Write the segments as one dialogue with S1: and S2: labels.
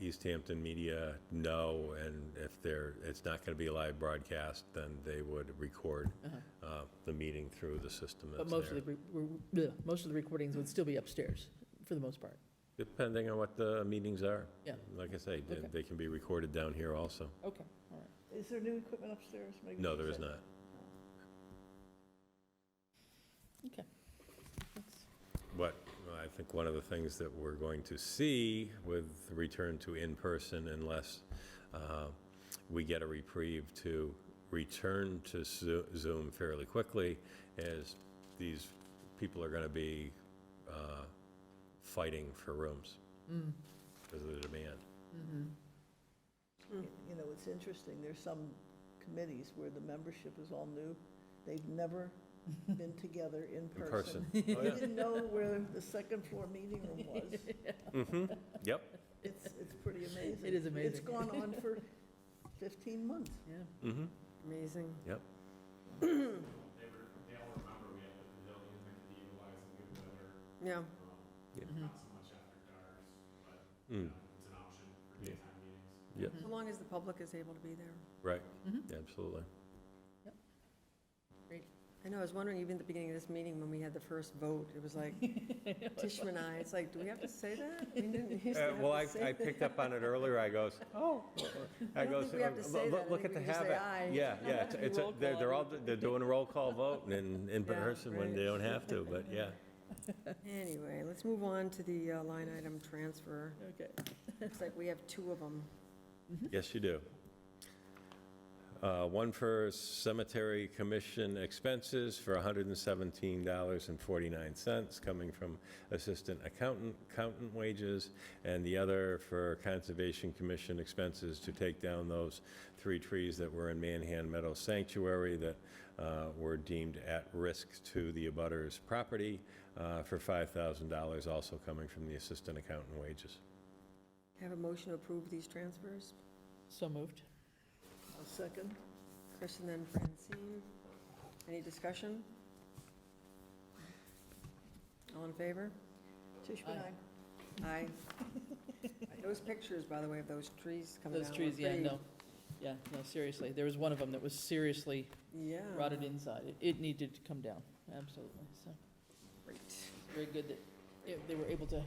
S1: East Hampton media know, and if they're, it's not going to be a live broadcast, then they would record uh, the meeting through the system
S2: Uh-huh. But
S1: that's
S2: most of the,
S1: there.
S2: re- re- bleh, most of the recordings would still be upstairs, for the most part.
S1: Depending on what the meetings are.
S2: Yeah.
S1: Like I say,
S2: Okay.
S1: they- they can be recorded down here also.
S2: Okay, all right.
S3: Is there new equipment upstairs? Maybe
S1: No,
S3: we
S1: there is
S3: should-
S1: not.
S2: Okay. That's-
S1: But I think one of the things that we're going to see with the return to in-person unless uh, we get a reprieve to return to Zo- Zoom fairly quickly is these people are going to be uh, fighting for rooms
S2: Mm-hmm,
S1: because of the demand.
S2: Mm.
S3: You know, it's interesting, there's some committees where the membership is all new. They've never been together in
S1: In
S3: person.
S1: person. Oh,
S3: They
S1: yeah.
S3: didn't know where the second floor meeting room was.
S1: Mm-hmm. Yep.
S3: It's, it's pretty amazing.
S2: It is
S3: It's
S2: amazing.
S3: gone on for 15 months.
S2: Yeah,
S1: Mm-hmm.
S4: Amazing.
S5: They were,
S1: Yep.
S5: they all remember we had the pavilion that could utilize in good weather,
S4: Yeah,
S5: um,
S1: Yeah.
S2: mm-hmm.
S5: not so much after dark, but
S1: Mm.
S5: you know, it's an option for daytime meetings.
S1: Yep.
S2: Mm-hmm.
S4: as long as the public is able to be there.
S1: Right. Absolutely.
S2: great.
S4: I know, I was wondering even at the beginning of this meeting, when we had the first vote, it was like Tishman and I, it's like, do we have to say that? We didn't used to
S1: Uh,
S4: have
S1: Well, I,
S4: to say
S1: I
S4: that.
S1: picked up on it earlier, I goes, oh, I
S4: don't
S1: goes,
S4: think we have to
S1: "Look-
S4: say that. I
S1: look- look at
S4: think
S1: the
S4: we can just say
S1: habit.
S4: aye.
S1: Yeah, yeah, it's- it's, a-
S2: Roll
S1: they're,
S2: call.
S1: they're all, they're doing a roll call vote in, in
S4: Yeah,
S1: person when they
S4: right.
S1: don't have to, but yeah.
S4: Anyway, let's move on to the uh, line item transfer.
S2: Okay.
S4: Looks like we have two of them.
S1: Yes, you do. Uh, One for cemetery commission expenses for $117.49, coming from assistant accountant, accountant wages, and the other for conservation commission expenses to take down those three trees that were in Manhan Meadow Sanctuary that uh, were deemed at risk to the abutters' property uh, for $5,000, also coming from the assistant accountant wages.
S4: Have a motion to approve these transfers.
S2: So moved.
S3: A second,
S4: Chris and then Francine. Any discussion? All in favor?
S3: Tishman,
S2: Aye.
S3: I,
S4: Aye. Those pictures, by the way, of those trees coming down.
S2: Those
S4: were
S2: trees, yeah,
S4: pretty-
S2: no, yeah, no, seriously. There was one of them that was seriously
S3: Oh.
S4: Yeah.
S2: rotted inside. It- It needed to come down, absolutely, so.
S4: Great.
S2: it's Very good that it- they were able to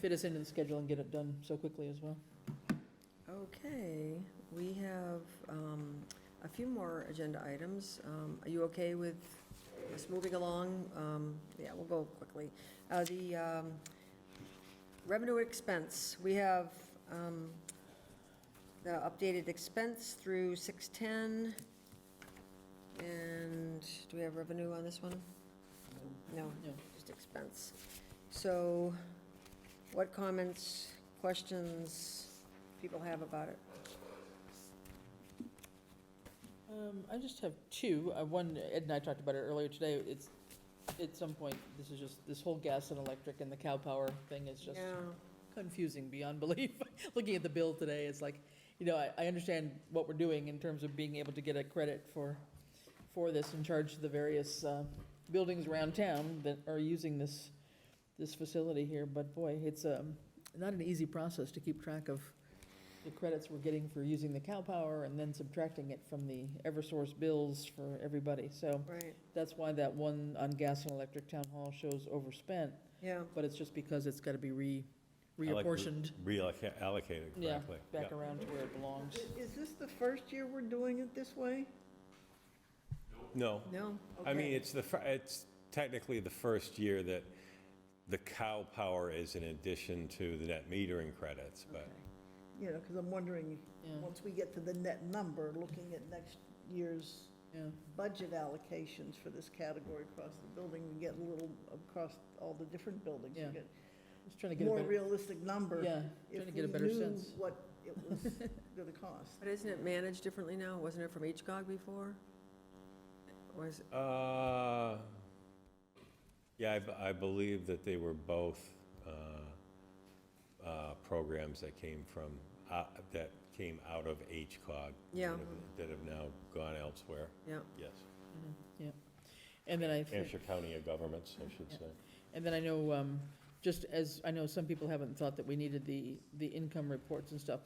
S2: fit us into the schedule and get it done so quickly as well.
S4: Okay, we have um, a few more agenda items. Um, Are you okay with us moving along? Um, Yeah, we'll go quickly. Uh, The um, revenue expense, we have um, the updated expense through 610. And do we have revenue on this one? No,
S2: No.
S4: just expense. So what comments, questions people have about it?
S2: Um, I just have two. Uh, One, Ed and I talked about it earlier today. It's, at some point, this is just, this whole gas and electric and the cow power thing is just
S4: Yeah,
S2: confusing beyond belief. Looking at the bill today, it's like, you know, I, I understand what we're doing in terms of being able to get a credit for, for this and charge the various, uh, buildings around town that are using this, this facility here, but boy, it's, um, not an easy process to keep track of the credits we're getting for using the cow power and then subtracting it from the Eversource bills for everybody. So
S4: right,
S2: that's why that one on gas and electric town hall shows overspent,
S4: yeah.
S2: but it's just because it's gotta be re,
S1: I like re-
S2: reapportioned.
S1: Reallocated
S2: Yeah,
S1: correctly.
S2: back around to where it belongs.
S3: I- is this the first year we're doing it this way?
S1: No.
S4: No,
S1: I mean,
S3: Okay.
S1: it's the, fir- it's technically the first year that the cow power is in addition to the net metering credits, but
S3: You know, because I'm wondering,
S2: Yeah.
S3: once we get to the net number, looking at next year's
S2: Yeah,
S3: budget allocations for this category across the building, we get a little across all the different buildings. we
S2: Yeah.
S3: get
S2: just trying to get a
S3: More
S2: better,
S3: realistic number.
S2: yeah, trying to get a better
S3: If we
S2: sense.
S3: knew what it was going to cost.
S4: but isn't it managed differently now? Wasn't it from HGOG before? Was,
S1: Uh, Yeah, I b- I, believe that they were both uh, uh, programs that came from, uh, that came out of HCOG. that
S4: Yeah.
S1: have- That have now gone elsewhere,
S4: yeah,
S1: yes.
S2: Mm-hmm. Yeah, and then I, think-
S1: Hampshire County of Governments, I should say.
S2: and then I know um, just as, I know some people haven't thought that we needed the, the income reports and stuff,